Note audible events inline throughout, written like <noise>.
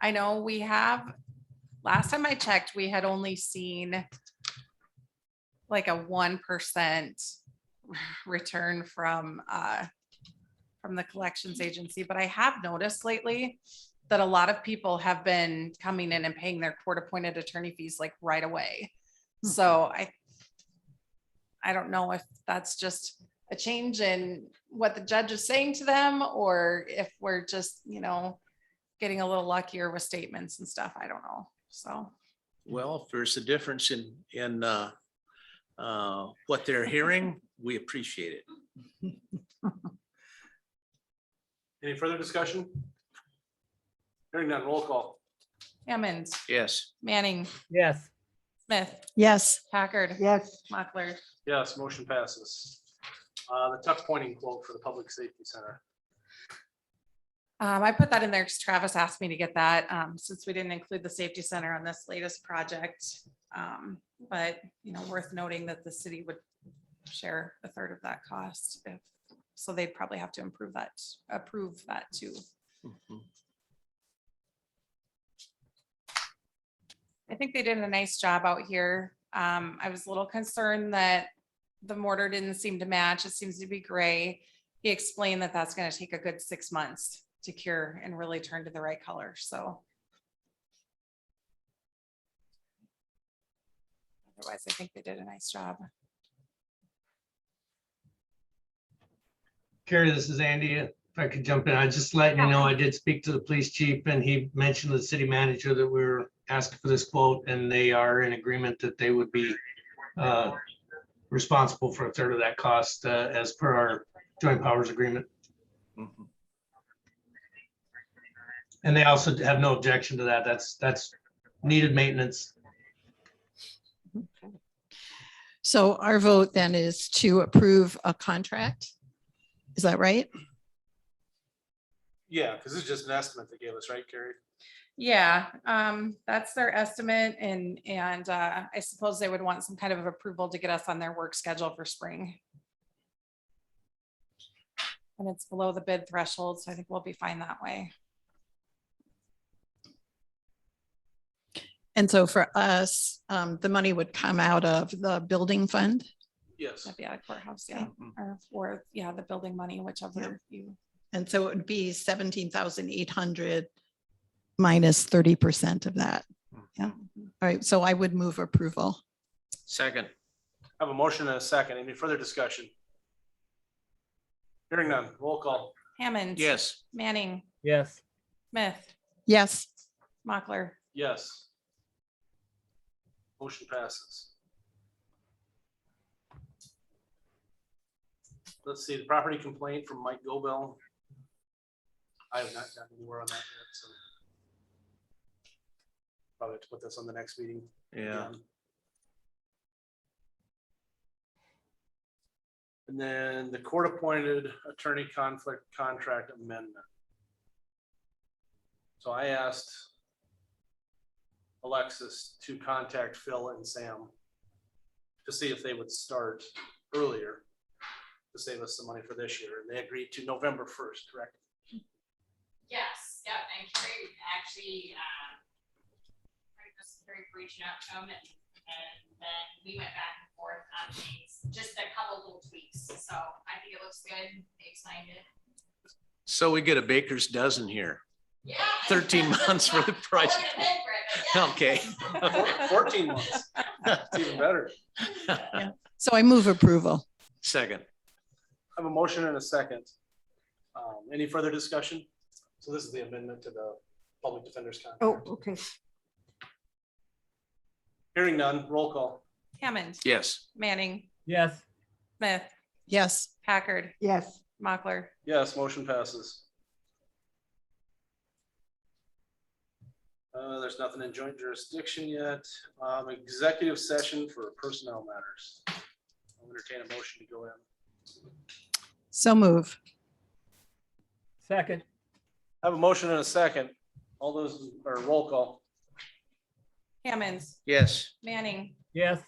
I know we have, last time I checked, we had only seen like a one percent return from, uh, from the collections agency, but I have noticed lately that a lot of people have been coming in and paying their court-appointed attorney fees like right away. Hmm. So I, I don't know if that's just a change in what the judge is saying to them, or if we're just, you know, getting a little luckier with statements and stuff. I don't know. So, Well, if there's a difference in, in uh, uh, what they're hearing, we appreciate it. Any further discussion? Hearing none, roll call. Hammond, Yes. Manning, Yes. Smith, Yes. Packard, Yes. Mochler. Yes, motion passes. Uh, The tuck pointing quote for the Public Safety Center. Um, I put that in there because Travis asked me to get that, um, since we didn't include the safety center on this latest project. Um, but, you know, worth noting that the city would share a third of that cost. if- So they'd probably have to improve that, approve that too. Mm-hmm, I think they did a nice job out here. Um, I was a little concerned that the mortar didn't seem to match. It seems to be gray. He explained that that's gonna take a good six months to cure and really turn to the right color, so. Otherwise, I think they did a nice job. Carrie, this is Andy. If I could jump in, I just let you know, I did speak to the police chief and he mentioned to the city manager that we were asking for this quote and they are in agreement that they would be uh, responsible for a third of that cost uh, as per our joint powers agreement. mm-hmm, And they also have no objection to that. That's, that's needed maintenance. So our vote then is to approve a contract. Is that right? Yeah, because it's just an estimate they gave us, right, Carrie? Yeah, um, that's their estimate and, and, uh, I suppose they would want some kind of approval to get us on their work schedule for spring. And it's below the bid threshold, so I think we'll be fine that way. And so for us, um, the money would come out of the building fund. Yes. That'd be out of courthouse, yeah, mm-hmm. or, or, yeah, the building money, whichever you, And so it would be seventeen thousand eight hundred minus thirty percent of that. Yeah. All right. So I would move approval. Second. I have a motion and a second. Any further discussion? Hearing none, roll call. Hammond. Yes. Manning, yes, Smith, Yes. Mochler, Yes. Motion passes. Let's see, the property complaint from Mike Gobel. I have not gotten anywhere on that yet, so. Probably have to put this on the next meeting. Yeah. And then the court-appointed attorney conflict contract amendment. So I asked Alexis to contact Phil and Sam to see if they would start earlier to save us some money for this year, and they agreed to November first, correct? Yes, yep, and Carrie actually, um, Carrie was very reaching out to him and, and then we went back and forth on things, just a couple little tweaks, so I think it looks good, they signed it. So we get a baker's dozen here. Yeah. 13 months for the price. <laughs> <laughs> I would've bid for it, but yeah. Okay. Four- <laughs> Fourteen months, it's even better. So I move approval. Second. I have a motion and a second. Um, any further discussion? So this is the amendment to the public defender's Oh, contract. okay. Hearing none, roll call. Hammond, Yes. Manning, yes, Smith, Yes. Packard, Yes, Mochler, Yes, motion passes. Uh, there's nothing in joint jurisdiction yet. Um, executive session for personnel matters. I'll entertain a motion to go in. So move. second, I have a motion and a second. All those, or roll call. Hammond, Yes. Manning, yes.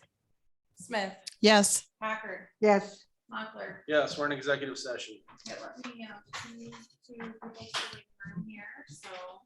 Smith, Yes. Packard, yes. Mochler. Yes, we're in executive session. um, It let me, uh, to, to, to, to, here, so.